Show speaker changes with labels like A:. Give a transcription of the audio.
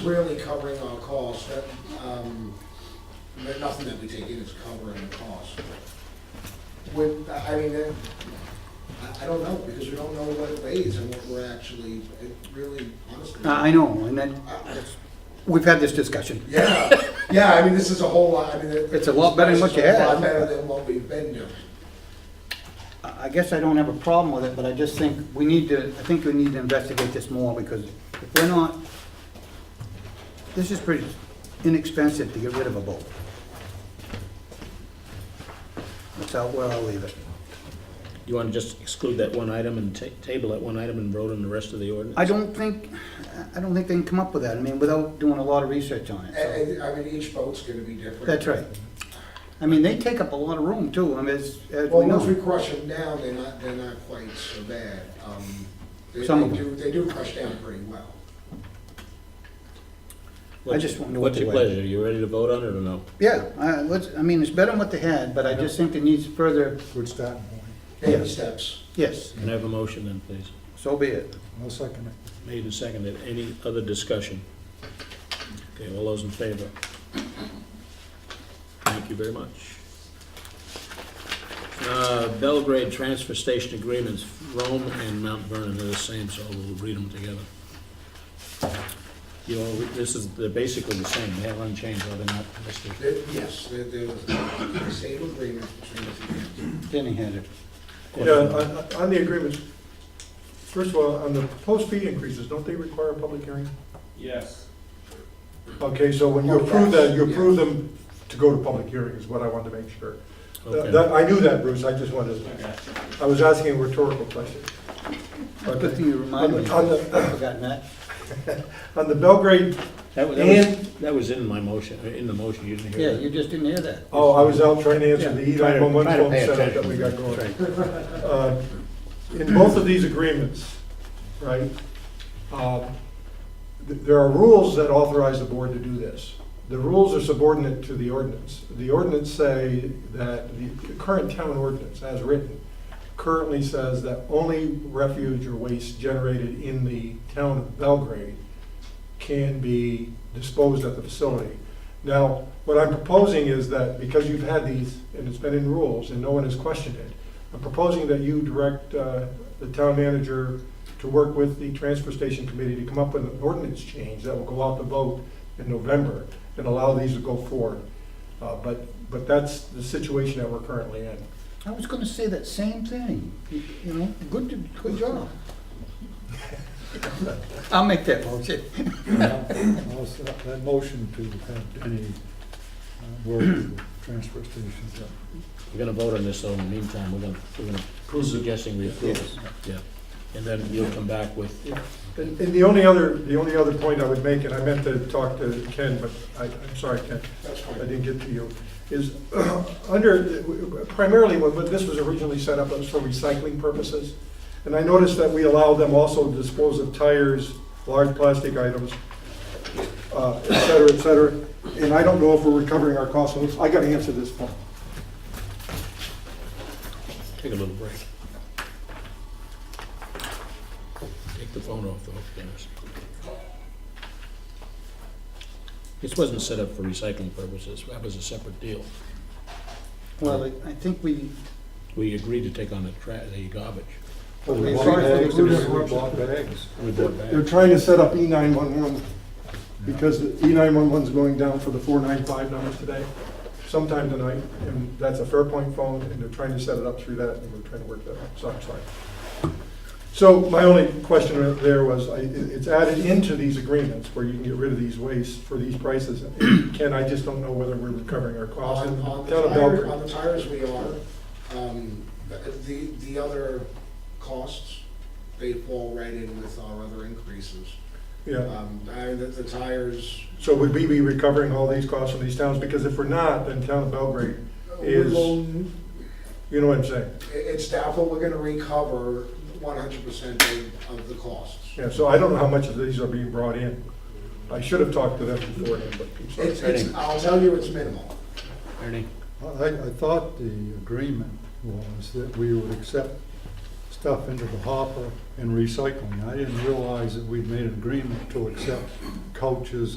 A: really covering our costs, that, um, that nothing that we take in is covering the cost. When, I mean, that- I, I don't know, because we don't know what it weighs and what we're actually, it really, honestly.
B: Uh,
A: Uh,
B: I I know, and then, we've had this discussion.
A: Yeah, yeah, I mean, this is a whole lot, I mean. it-
B: It's a lot better than what you had.
A: It's a lot better than what we've been doing.
B: I I guess I don't have a problem with it, but I just think we need to, I think we need to investigate this more, because if we're not, this is pretty inexpensive to get rid of a boat. That's how, where I'll leave it.
C: You want to just exclude that one item and ta- table that one item and vote on the rest of the ordinance?
B: I don't think, I don't think they can come up with that, I mean, without doing a lot of research on it, so.
A: And, and, I mean, each boat's gonna be different.
B: That's right. I mean, they take up a lot of room too, I mean, as, as we
A: Well, once we
B: know.
A: crush them down, they're not, they're not quite so bad. Um, They
B: Some
A: they
B: of
A: do, they do crush down pretty well.
B: I just wanna know what
C: What's
B: the
C: your
B: way-
C: pleasure? You ready to vote on it or no?
B: Yeah, I, let's, I mean, it's better than what they had, but I just think it needs further,
D: Good starting point.
A: Baby
B: Yeah.
A: steps.
B: yes,
C: Can I have a motion then, please?
B: so be it.
D: I'll second it.
C: Made and seconded. Any other discussion? Okay, all those in favor? Thank you very much. Uh, Belgrade Transfer Station Agreements, Rome and Mount Vernon are the same, so we'll read them together. You know, this is, they're basically the same. They haven't changed, are they not, Mr.?
A: They're- Yes, there there was the same agreement between the two entities.
B: Denny had it.
E: Yeah, on, on- on the agreements, first of all, on the proposed fee increases, don't they require a public hearing?
F: Yes.
E: Okay, so when you
A: Oh,
E: approve
A: yes,
E: that, you
A: yes.
E: approve them to go to public hearing is what I wanted to make sure.
C: Okay.
E: That- that- I knew that, Bruce, I just wanted,
F: Okay.
E: I was asking a rhetorical question.
B: That's Good thing you reminded me.
E: On
B: I've
E: the-
B: forgotten that.
E: On the Belgrade,
C: That was, that was- that was in my motion, uh, in the motion, you didn't
B: Yeah,
C: hear
B: you
C: that?
B: just didn't hear that.
E: oh, I was out trying to answer the
B: Yeah,
C: try
E: Eli
C: to- try
E: Momentum
C: to pay
E: setup that we got
C: attention.
E: going. Uh, In both of these agreements, right, um, th- there are rules that authorize the board to do this. The rules are subordinate to the ordinance. The ordinance say that, the current town ordinance as written currently says that only refuge or waste generated in the town of Belgrade can be disposed at the facility. Now, what I'm proposing is that because you've had these, and it's been in rules, and no one has questioned it, I'm proposing that you direct uh, the town manager to work with the transfer station committee to come up with an ordinance change that will go out to vote in November and allow these to go forward. Uh, But, but that's the situation that we're currently in.
B: I was gonna say that same thing, you you know, good, to- good job. I'll make that motion.
D: I'll se- That motion to have Denny uh, work with the transfer station.
C: We're gonna vote on this, though, in the meantime, we're gonna, we're gonna, suggesting we approve it, yeah. And then you'll come back with,
E: And and the only other, the only other point I would make, and I meant to talk to Ken, but I, I'm sorry, Ken,
A: That's
E: I
A: fine.
E: didn't get to you, is under, primarily when when this was originally set up, it was for recycling purposes. And I noticed that we allow them also to dispose of tires, large plastic items, uh, et cetera, et cetera. And I don't know if we're recovering our costs on this. I gotta answer this phone.
C: take a little break. Take the phone off the hook, Dennis. This wasn't set up for recycling purposes, that was a separate deal.
B: Well, I- I think we,
C: We agreed to take on the tra, the garbage.
B: we bought eggs, we
D: bought bags.
C: We bought back.
E: They're trying to set up E nine-one-one, because E nine-one-one's going down for the four-nine-five numbers today, sometime tonight, and that's a Fairpoint phone, and they're trying to set it up through that, and we're trying to work that out, so I'm sorry. So my only question there was, I- it- it's added into these agreements where you can get rid of these wastes for these prices. Ken, I just don't know whether we're recovering our costs.
A: On,
E: And
A: on the
E: down at
A: tire-
E: Belgrade-
A: on the tires, we are, um, but the, the other costs, they fall right in with our other increases.
E: Yeah,
A: Um, I, the, the tires,
E: so would we be recovering all these costs from these towns? Because if we're not, then town of Belgrade, Is-
A: will-
E: you know what I'm saying?
A: it- it's doubtful we're gonna recover one hundred percent of, of the costs.
E: Yeah, so I don't know how much of these are being brought in. I should have talked to them beforehand, but I'm sorry.
A: It's, it's, I'll tell you, it's minimal.
C: Ernie?
D: I, I thought the agreement was that we would accept stuff into the hopper and recycling. I didn't realize that we'd made an agreement to accept couches